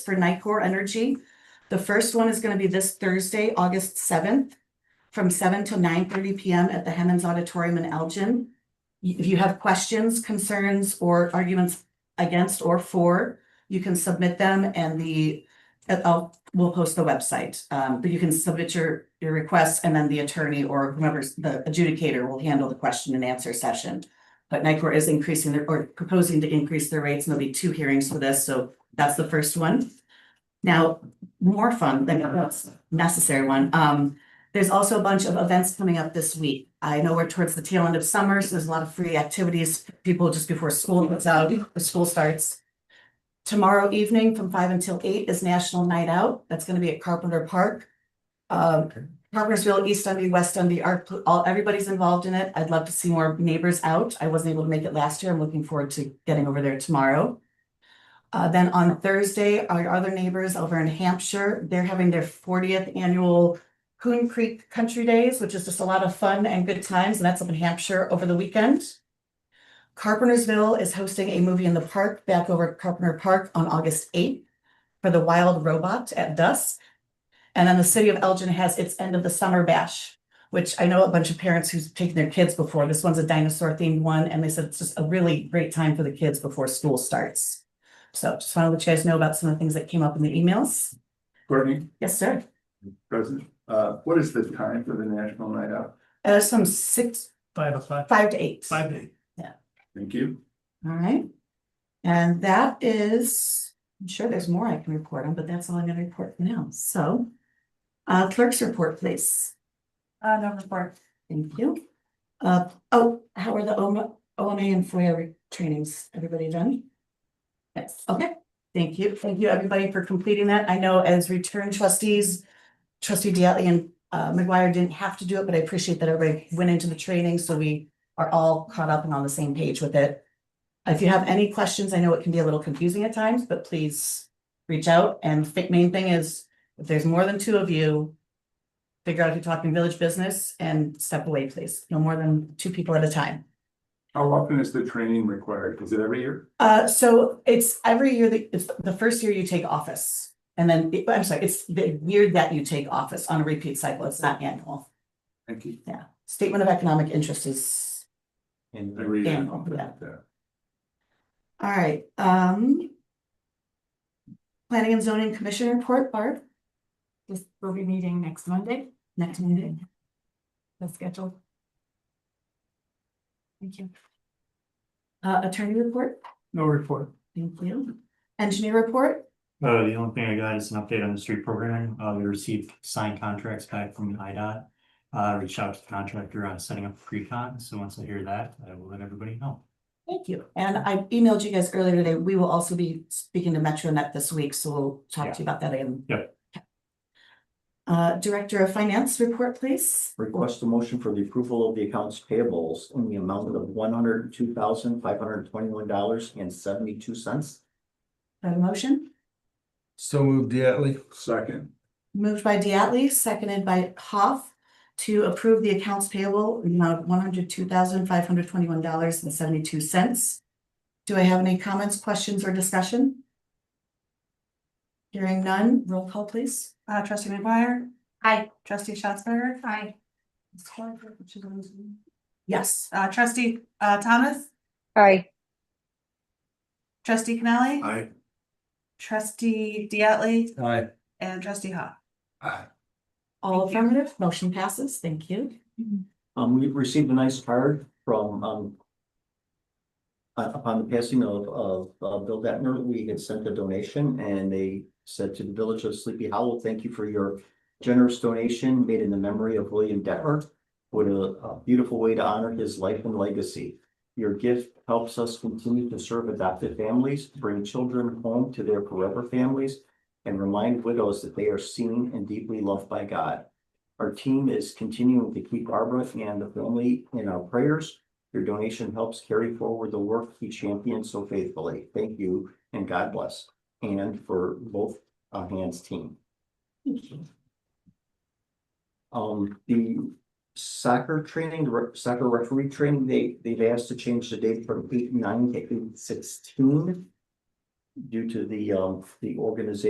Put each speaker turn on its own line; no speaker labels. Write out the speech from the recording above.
for Nicor Energy. The first one is gonna be this Thursday, August seventh, from seven to nine thirty PM at the Hemmons Auditorium in Elgin. Y- If you have questions, concerns, or arguments against or for, you can submit them and the, uh, I'll, we'll post the website. Um, but you can submit your, your requests and then the attorney or whomever's the adjudicator will handle the question and answer session. But Nicor is increasing their, or proposing to increase their rates, and there'll be two hearings for this, so that's the first one. Now, more fun than that's necessary one, um, there's also a bunch of events coming up this week. I know we're towards the tail end of summer, so there's a lot of free activities, people just before school goes out, the school starts. Tomorrow evening from five until eight is National Night Out, that's gonna be at Carpenter Park. Um, Carpentersville, East Dundee, West Dundee, our, all, everybody's involved in it. I'd love to see more neighbors out. I wasn't able to make it last year. I'm looking forward to getting over there tomorrow. Uh, then on Thursday, our other neighbors over in Hampshire, they're having their fortieth annual Coon Creek Country Days, which is just a lot of fun and good times, and that's up in Hampshire over the weekend. Carpentersville is hosting a movie in the park back over at Carpenter Park on August eighth for the Wild Robot at dusk. And then the city of Elgin has its end of the summer bash, which I know a bunch of parents who's taken their kids before. This one's a dinosaur themed one, and they said it's just a really great time for the kids before school starts. So just want to let you guys know about some of the things that came up in the emails.
Courtney,
Yes, sir.
President, uh, what is the time for the National Night Out?
Uh, some six,
Five o'clock,
five to eight.
five day.
Thank you.
All right. And that is, I'm sure there's more I can report on, but that's all I'm gonna report for now. So uh, clerk's report, please.
Uh, no report.
Thank you. Uh, oh, how are the OMA, OMA and FOIA re- trainings? Everybody done? Yes, okay, thank you. Thank you, everybody, for completing that. I know as return trustees, trustee Diatley and uh McGuire didn't have to do it, but I appreciate that everybody went into the training, so we are all caught up and on the same page with it. If you have any questions, I know it can be a little confusing at times, but please reach out. And the main thing is, if there's more than two of you, figure out if you're talking village business and step away, please. No more than two people at a time.
How often is the training required? Is it every year?
Uh, so it's every year that, it's the first year you take office. And then, I'm sorry, it's the year that you take office on a repeat cycle. It's not annual.
Thank you.
Yeah. Statement of economic interest is
Every year.
Annual, yeah. All right, um. Planning and zoning commission report, Barb,
This will be meeting next Monday,
next meeting.
the schedule. Thank you.
Uh, attorney report,
No report.
thank you. Engineer report,
Uh, the only thing I got is an update on the street program. Uh, we received signed contracts back from IDOT. Uh, reached out to the contractor on setting up pre-con, so once I hear that, I will let everybody know.
thank you. And I emailed you guys earlier today. We will also be speaking to MetroNet this week, so we'll talk to you about that again.
Yep.
Uh, Director of Finance report, please.
Request a motion for the approval of the accounts payables in the amount of one hundred and two thousand, five hundred and twenty-one dollars and seventy-two cents.
Have a motion,
So moved Diatley.
Second,
moved by Diatley, seconded by Hoff to approve the accounts payable in the amount of one hundred two thousand five hundred twenty-one dollars and seventy-two cents. Do I have any comments, questions, or discussion? Hearing none, roll call, please.
Uh, trustee McGuire. Hi. Trustee Schatzberger. Hi.
Yes.
Uh, trustee, uh, Thomas,
Aye,
trustee Canali.
Aye.
Trustee Diatley
Aye.
and trustee Ha.
All
Thank you.
affirmative, motion passes, thank you.
Um, we've received a nice card from, um, uh, upon the passing of, of, uh, Bill Detmer, we had sent a donation and they said to the village of Sleepy Hollow, thank you for your generous donation made in the memory of William Detmer. What a, a beautiful way to honor his life and legacy. Your gift helps us continue to serve adopted families, bring children home to their forever families, and remind widows that they are seen and deeply loved by God. Our team is continuing to keep Barbara and the family in our prayers. Your donation helps carry forward the work he championed so faithfully. Thank you and God bless. And for both uh, hands team. Um, the soccer training, the re- soccer referee training, they, they've asked to change the date from eight nine to eight sixteen due to the, um, the organization.